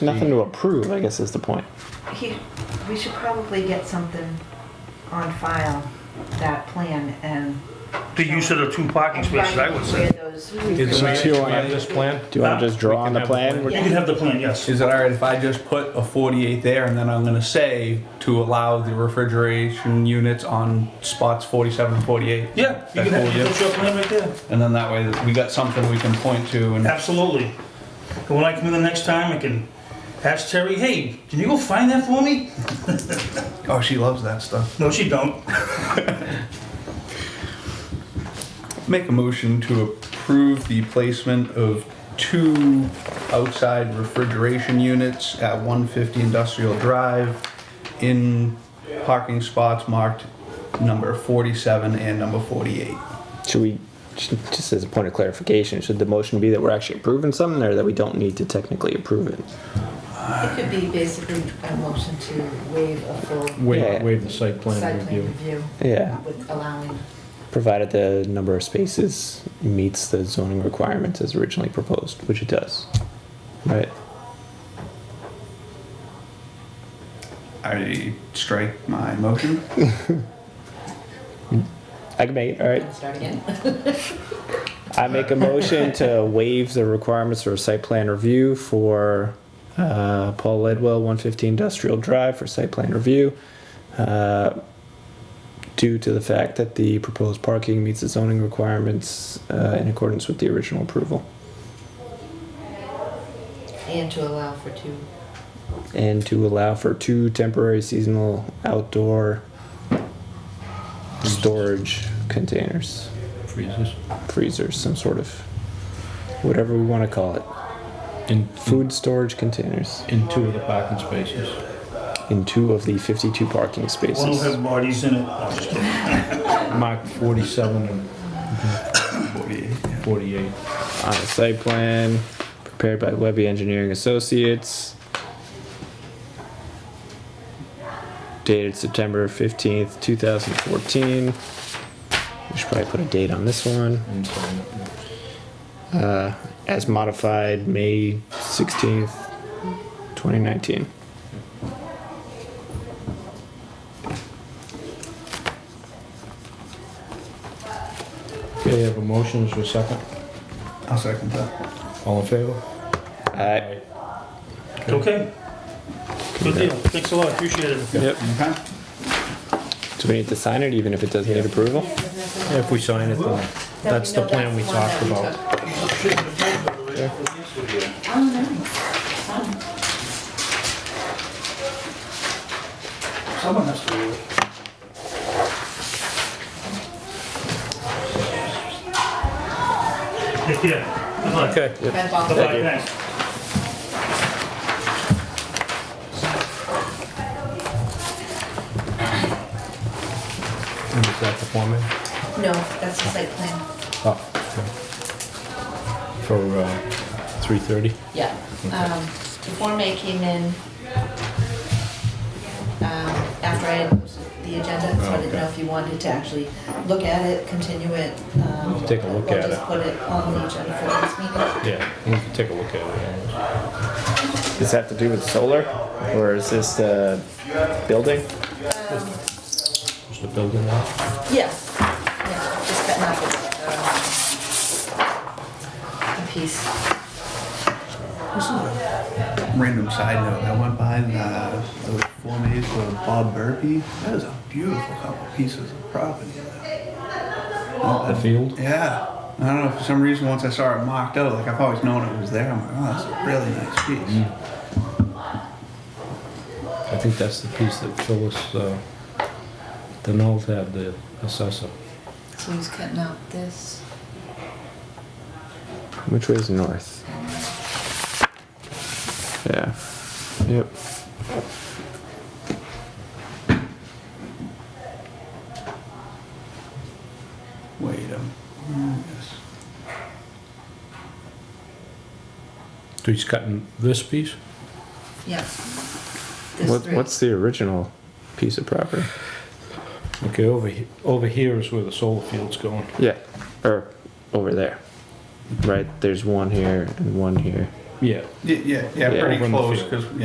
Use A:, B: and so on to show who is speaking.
A: Nothing to approve, I guess is the point.
B: He, we should probably get something on file, that plan and.
C: The use of the two parking spaces, I would say.
B: say.
D: Is it
E: Do you
D: all
E: want-
D: right this plan?
A: Do you want to just draw on the
D: have the
A: plan?
C: You can have the plan, yes.
E: Is it all right if I just put a 48 there and then I'm going to say to allow the refrigeration units on spots 47 and 48?
C: Yeah, you
E: That's
C: can
E: cool,
C: have,
E: yeah.
C: that's your plan right there.
E: And then that way we got something we can point to and
C: Absolutely. And when I come in the next time, I can ask Terry, hey, can you go find that for me?
E: oh, she loves that stuff.
C: No, she don't.
E: Make a motion to approve the placement of two outside refrigeration units at 150 Industrial Drive in parking spots marked number 47 and number 48.
A: Should we, just as a point of clarification, should the motion be that we're actually approving something or that we don't need to technically approve it?
B: It could be basically a motion to waive a full
A: Yeah.
D: Waive, waive the site plan
B: site plan
D: review.
B: review
A: Yeah,
B: with allowing.
A: provided the number of spaces meets the zoning requirements as originally proposed, which it does. Right?
E: I strike my motion.
A: I can make it, all right.
B: Start again.
A: I make a motion to waive the requirements for a site plan review for uh, Paul Ledwell, 115 Industrial Drive for site plan review. uh, Due to the fact that the proposed parking meets the zoning requirements uh, in accordance with the original approval.
B: And to allow for two.
A: And to allow for two temporary seasonal outdoor storage containers,
D: Freezes.
A: freezers, some sort of, whatever we want to call it.
D: In,
A: Food storage containers.
D: in two of the parking spaces.
A: in two of the 52 parking
C: One will have
A: spaces.
C: bodies in it. No, I'm just kidding.
D: Mark 47 and
E: 48.
D: 48.
A: On a site plan prepared by Webby Engineering Associates. Dated September 15th, 2014. We should probably put a date on this one.
D: and sign it.
A: Uh, as modified May 16th, 2019.
D: Okay, I have a motion, is there a second?
E: I'll second that.
D: All in favor?
A: Uh,
C: Okay. Good deal. Thanks a lot. Appreciate it.
A: yep.
E: Okay.
A: Do we need to sign it even if it doesn't need approval?
D: Yeah, If we sign it, then that's the plan we talked about.
C: Someone has to do it. Yeah. Good luck.
D: Okay. yep.
C: Good luck. Thanks.
D: And Is that the format?
B: No, that's the site plan.
D: Oh. okay. For, uh, 3:30?
B: Yeah. Um, The Form A came in um, after I had posted the agenda, so I
D: Oh,
B: didn't know if you wanted to actually look at it, continue it. um,
D: Take a look
B: or
D: at
B: just
D: it.
B: put it on the agenda for this meeting.
D: Yeah, we can take a look at it.
A: Does that have to do with solar? Or is this the building?
D: Is the building out?
B: Yeah, yeah, just cutting up it. um, A piece.
E: Random side note, I went by the, the Form A's for Bob Burpee. That is a beautiful couple pieces of property there.
D: The field?
E: Yeah. I don't know, for some reason, once I saw it marked out, like I've always known it was there, I'm like, oh, that's a really nice piece.
D: I think that's the piece that Phyllis, uh, Denault had, the assessor.
B: So he's cutting out this.
A: Which way is north? Yeah. Yep.
E: Wait a minute.
D: So he's cutting this piece?
B: Yeah. This
A: What,
B: three.
A: what's the original piece of property?
D: Okay, over, he- over here is where the solar field's going.
A: Yeah. Or over there. Right? There's one here and one here.
E: Yeah.
D: Yeah, yeah, yeah,
F: Yeah.
D: pretty
E: Over in the
D: close,
E: field.
D: because,